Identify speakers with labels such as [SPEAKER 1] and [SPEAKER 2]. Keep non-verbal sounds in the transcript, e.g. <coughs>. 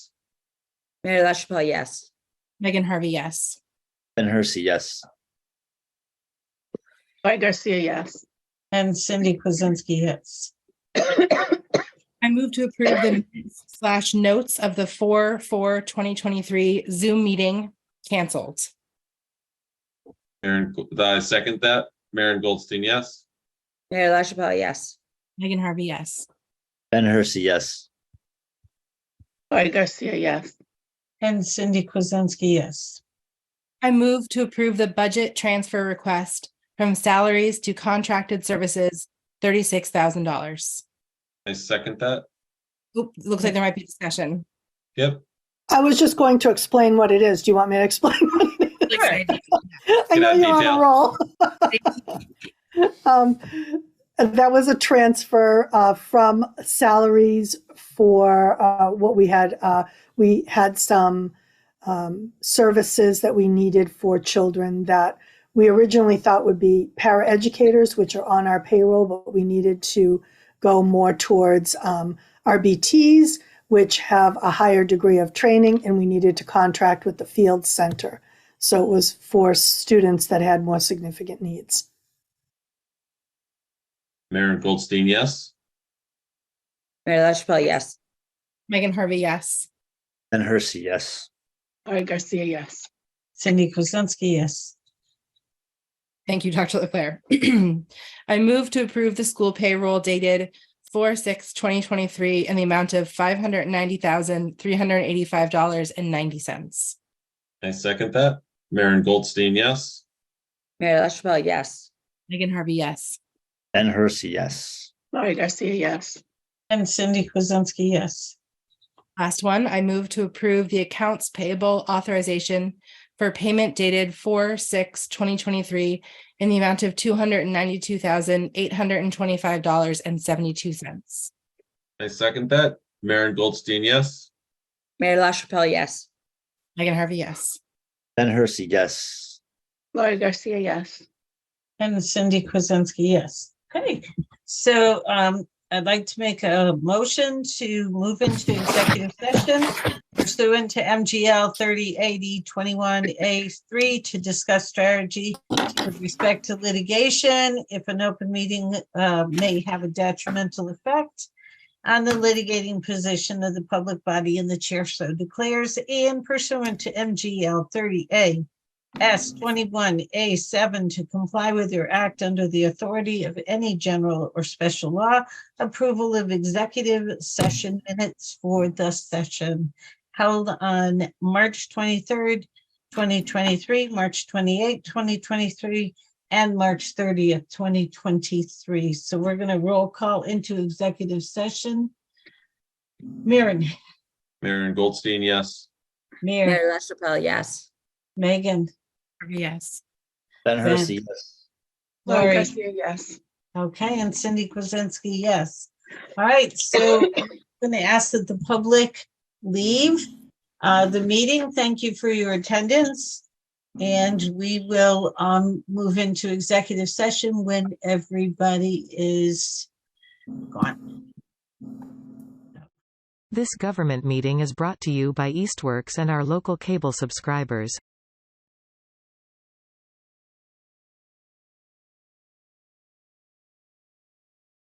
[SPEAKER 1] Mayor LaChapelle, yes.
[SPEAKER 2] Megan Harvey, yes.
[SPEAKER 3] Ben Hersey, yes.
[SPEAKER 4] Laurie Garcia, yes. <coughs>
[SPEAKER 5] And Cindy Kuzensky, yes.
[SPEAKER 2] I move to approve the minutes slash notes of the four, four, 2023 Zoom meeting canceled.
[SPEAKER 6] Aaron, I second that. Maren Goldstein, yes.
[SPEAKER 1] Mayor LaChapelle, yes.
[SPEAKER 2] Megan Harvey, yes.
[SPEAKER 3] Ben Hersey, yes.
[SPEAKER 4] Laurie Garcia, yes.
[SPEAKER 5] And Cindy Kuzensky, yes.
[SPEAKER 2] I move to approve the budget transfer request from salaries to contracted services, $36,000.
[SPEAKER 6] I second that.
[SPEAKER 2] Oop, Looks like there might be discussion.
[SPEAKER 6] Yep.
[SPEAKER 7] I was just going to explain what it is. Do you want me to explain? <laughs> what it is? I
[SPEAKER 6] Get
[SPEAKER 7] know
[SPEAKER 6] out
[SPEAKER 7] you're on
[SPEAKER 6] detail.
[SPEAKER 7] a roll. <laughs> Um, That was a transfer uh, from salaries for uh, what we had. uh, We had some um, services that we needed for children that we originally thought would be paraeducators, which are on our payroll, but we needed to go more towards um, RBTs, which have a higher degree of training, and we needed to contract with the field center. So it was for students that had more significant needs.
[SPEAKER 6] Maren Goldstein, yes.
[SPEAKER 1] Mayor LaChapelle, yes.
[SPEAKER 2] Megan Harvey, yes.
[SPEAKER 3] Ben Hersey, yes.
[SPEAKER 4] Laurie Garcia, yes.
[SPEAKER 5] Cindy Kuzensky, yes.
[SPEAKER 2] Thank you, Dr. Leclair. <clears throat> I move to approve the school payroll dated 4 6 2023 in the amount of $590,385.90.
[SPEAKER 6] I second that. Maren Goldstein, yes.
[SPEAKER 1] Mayor LaChapelle, yes.
[SPEAKER 2] Megan Harvey, yes.
[SPEAKER 3] Ben Hersey, yes.
[SPEAKER 4] Laurie Garcia, yes.
[SPEAKER 5] And Cindy Kuzensky, yes.
[SPEAKER 2] Last one, I move to approve the accounts payable authorization for payment dated 4 6 2023 in the amount of $292,825.72.
[SPEAKER 6] I second that. Maren Goldstein, yes.
[SPEAKER 1] Mayor LaChapelle, yes.
[SPEAKER 2] Megan Harvey, yes.
[SPEAKER 3] Ben Hersey, yes.
[SPEAKER 4] Laurie Garcia, yes.
[SPEAKER 5] And Cindy Kuzensky, yes. Okay, so um, I'd like to make a motion to move into executive session pursuant to MGL thirty eighty twenty-one A three to discuss strategy with respect to litigation if an open meeting uh, may have a detrimental effect on the litigating position of the public body and the chair so declares and pursuant to MGL thirty A S twenty-one A seven to comply with your act under the authority of any general or special law. Approval of executive session minutes for the session held on March twenty-third, twenty twenty-three, March 28, 2023, and March thirtieth, twenty twenty-three. So we're gonna roll call into executive session. Maren,
[SPEAKER 6] Maren Goldstein, yes.
[SPEAKER 5] Mayor,
[SPEAKER 1] Mayor LaChapelle, yes.
[SPEAKER 5] Megan,
[SPEAKER 2] Harvey, yes.
[SPEAKER 3] Ben
[SPEAKER 5] Ben.
[SPEAKER 3] Hersey, yes.
[SPEAKER 4] Laurie
[SPEAKER 5] Lori.
[SPEAKER 4] Garcia, yes.
[SPEAKER 5] Okay, and Cindy Kuzensky, yes. All right, so I'm going to ask that the public leave uh, the meeting. Thank you for your attendance. And we will um, move into executive session when everybody is gone.
[SPEAKER 8] This government meeting is brought to you by Eastworks and our local cable subscribers.